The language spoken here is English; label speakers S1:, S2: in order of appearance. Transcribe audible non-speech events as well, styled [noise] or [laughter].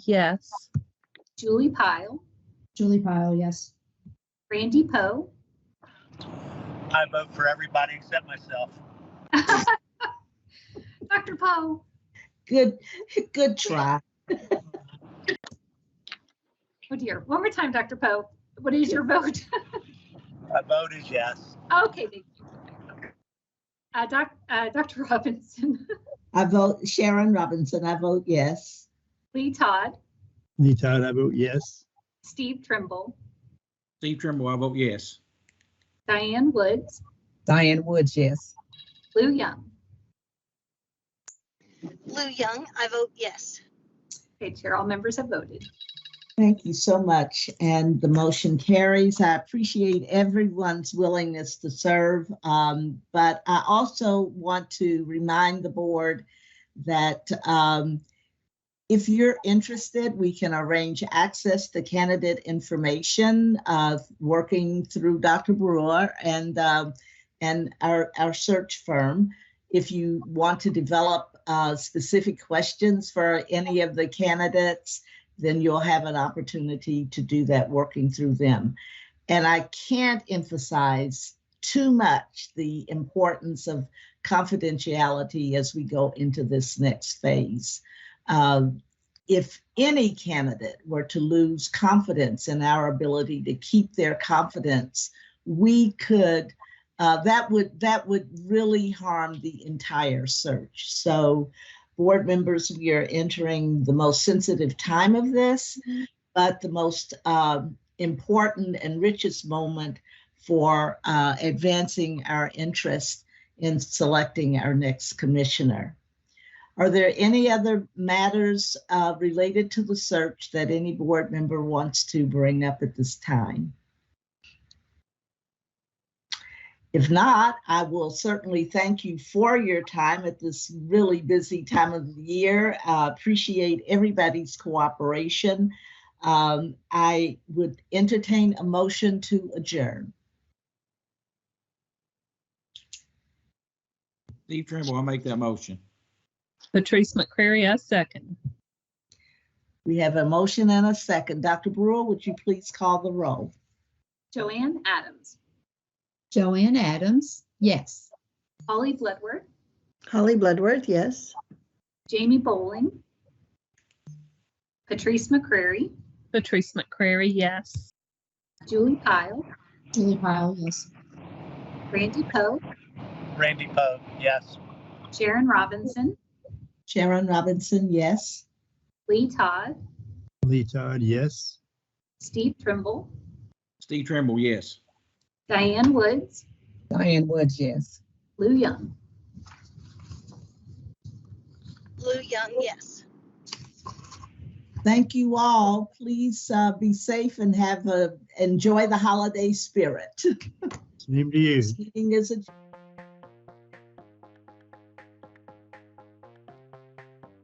S1: Yes.
S2: Julie Pyle,
S3: Julie Pyle, yes.
S2: Randy Poe,
S4: I vote for everybody except myself.
S2: Dr. Poe,
S3: Good, good try.
S2: oh dear, one more time, Dr. Poe, what is your vote? [laughs]
S4: My vote is yes.
S2: Okay, thank you. Uh, doc, uh, Dr. Robinson, [laughs]
S3: I vote Sharon Robinson, I vote yes.
S2: Lee Todd,
S5: Lee Todd, I vote yes.
S2: Steve Trimble,
S6: Steve Trimble, I vote yes.
S2: Diane Woods,
S7: Diane Woods, yes.
S2: Lou Young.
S8: Lou Young, I vote yes.
S2: Okay, Chair, all members have voted.
S3: Thank you so much, and the motion carries. I appreciate everyone's willingness to serve. Um, but I also want to remind the board that um, if you're interested, we can arrange access to candidate information uh, working through Dr. Brewer and um, and our our search firm. If you want to develop uh, specific questions for any of the candidates, then you'll have an opportunity to do that working through them. And I can't emphasize too much the importance of confidentiality as we go into this next phase. Um, if any candidate were to lose confidence in our ability to keep their confidence, we could uh, that would that would really harm the entire search. So board members, we are entering the most sensitive time of this, but the most um, important and richest moment for uh, advancing our interest in selecting our next commissioner. Are there any other matters uh, related to the search that any board member wants to bring up at this time? If not, I will certainly thank you for your time at this really busy time of the year. Uh, appreciate everybody's cooperation. Um, I would entertain a motion to adjourn.
S6: Steve Trimble, I make that motion.
S1: Patrice McCrary, I second.
S3: We have a motion and a second. Dr. Brewer, would you please call the roll?
S2: Joanne Adams,
S9: Joanne Adams, yes.
S2: Holly Bloodworth,
S7: Holly Bloodworth, yes.
S2: Jamie Bowling, Patrice McCrary,
S1: Patrice McCrary, yes.
S2: Julie Pyle,
S9: Julie Pyle, yes.
S2: Randy Poe,
S4: Randy Poe, yes.
S2: Sharon Robinson,
S3: Sharon Robinson, yes.
S2: Lee Todd,
S5: Lee Todd, yes.
S2: Steve Trimble,
S6: Steve Trimble, yes.
S2: Diane Woods,
S7: Diane Woods, yes.
S2: Lou Young.
S8: Lou Young, yes.
S3: Thank you all. Please uh, be safe and have a enjoy the holiday spirit.
S5: Same to you.
S3: This meeting is adjourned.